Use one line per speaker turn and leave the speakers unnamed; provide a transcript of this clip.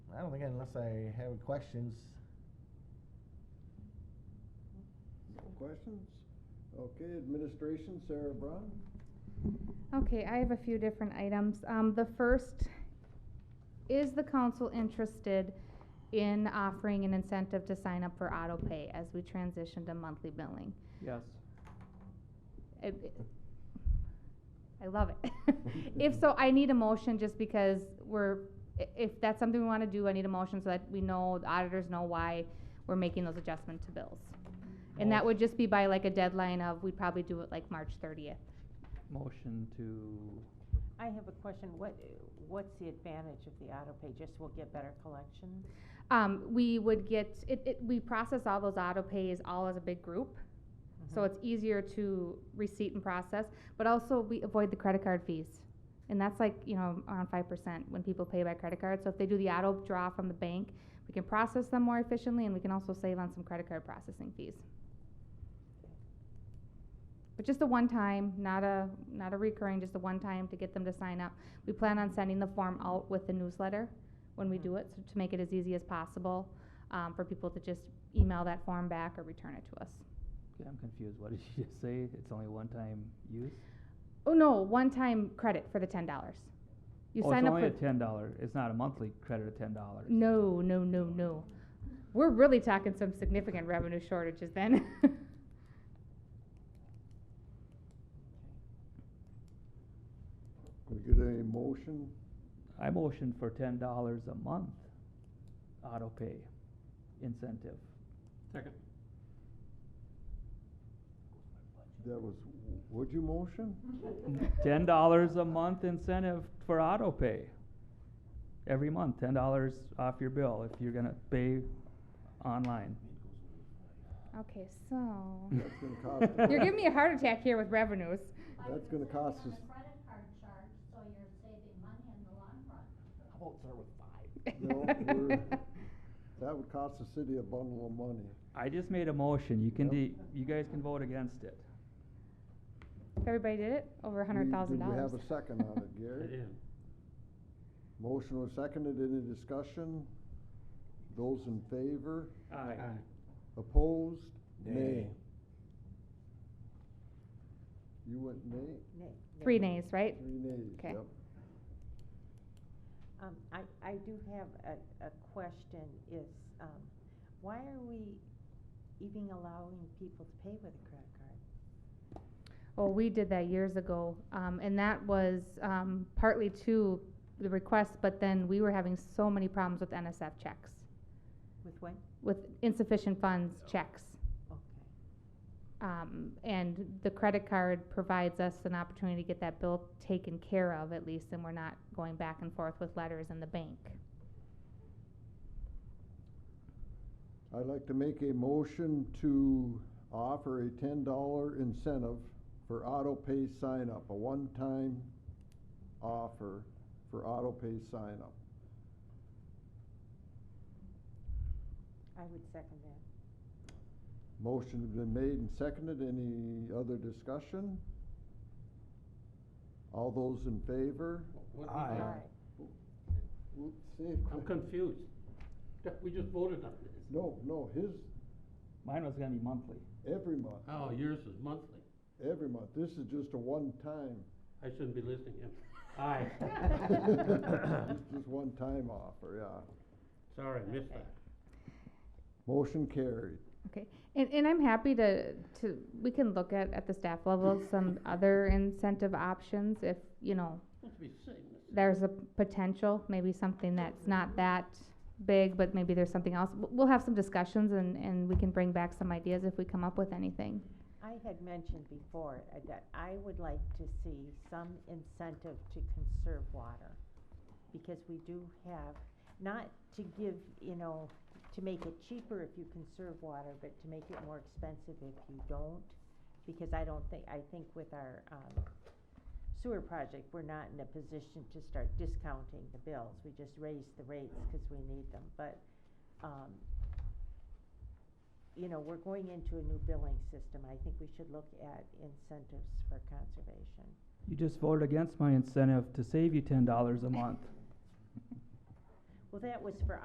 I don't think unless I have questions.
No questions? Okay, administration, Sarah Braun?
Okay, I have a few different items. Um, the first, is the council interested in offering an incentive to sign up for auto pay as we transition to monthly billing?
Yes.
It- it- I love it. If so, I need a motion just because we're, i- if that's something we wanna do, I need a motion so that we know, the auditors know why we're making those adjustments to bills. And that would just be by like a deadline of, we'd probably do it like March thirtieth.
Motion to,
I have a question, what, what's the advantage of the auto pay, just we'll get better collection?
Um, we would get, it, it, we process all those auto pays all as a big group, so it's easier to receipt and process, but also we avoid the credit card fees. And that's like, you know, around five percent when people pay by credit card, so if they do the auto draw from the bank, we can process them more efficiently and we can also save on some credit card processing fees. But just a one-time, not a, not a recurring, just a one-time to get them to sign up. We plan on sending the form out with the newsletter when we
Mhm.
do it, so to make it as easy as possible, um, for people to just email that form back or return it to us.
okay, I'm confused, what did you just say? It's only one-time use?
Oh, no, one-time credit for the ten dollars. You sign up
Oh, it's only a
for,
ten dollar, it's not a monthly credit of ten dollars.
no, no, no, no. We're really talking some significant revenue shortages then.
We get a motion?
I motion for ten dollars a month, auto pay incentive.
Second.
That was, would you motion?
Ten dollars a month incentive for auto pay. Every month, ten dollars off your bill if you're gonna pay online.
Okay, so,
That's gonna cost.
you're giving me a heart attack here with revenues.
That's gonna cost us-
I would put it on a credit card charge, so you're saving money in the long run.
How about start
No,
with five?
we're- That would cost the city a bundle of money.
I just made a motion, you can
Yep.
de- you guys can vote against it.
If everybody did it, over a
We-
hundred thousand
Did
dollars.
we have a second on it, Gary? Motion was seconded, any discussion? Those in favor?
Aye.
Opposed?
Nay.
You went nay?
Nay.
Three
Nay.
nays, right?
Three nays,
Okay.
yep.
Um, I, I do have a, a question is, um, why are we even allowing people to pay with a credit card?
Well, we did that years ago, um, and that was, um, partly to the request, but then we were having so many problems with NSF checks,
With what?
with insufficient funds checks.
Okay.
Um, and the credit card provides us an opportunity to get that bill taken care of at least, and we're not going back and forth with letters in the bank.
I'd like to make a motion to offer a ten dollar incentive for auto pay sign up, a one-time offer for auto pay sign up.
I would second that.
Motion has been made and seconded, any other discussion? All those in favor?
What-
Aye.
All right.
Oops, say it
I'm
quick.
confused. We just voted on this.
No, no, his,
Mine was gonna be monthly.
every month,
Oh, yours is monthly.
every month, this is just a one-time.
I shouldn't be listening to him. Aye.
It's Just one-time offer, yeah.
Sorry, missed that.
Motion carried.
And, and I'm happy to, to, we can look at, at the staff level, some other incentive options if, you know,
Must be saying this.
there's a potential, maybe something that's not that big, but maybe there's something else. W- We'll have some discussions and, and we can bring back some ideas if we come up with anything.
I had mentioned before uh, that I would like to see some incentive to conserve water. Because we do have, not to give, you know, to make it cheaper if you conserve water, but to make it more expensive if you don't. Because I don't think, I think with our, um, sewer project, we're not in a position to start discounting the bills. We just raise the rates because we need them, but, um, you know, we're going into a new billing system, I think we should look at incentives for conservation.
You just voted against my incentive to save you ten dollars a month.
Well, that was for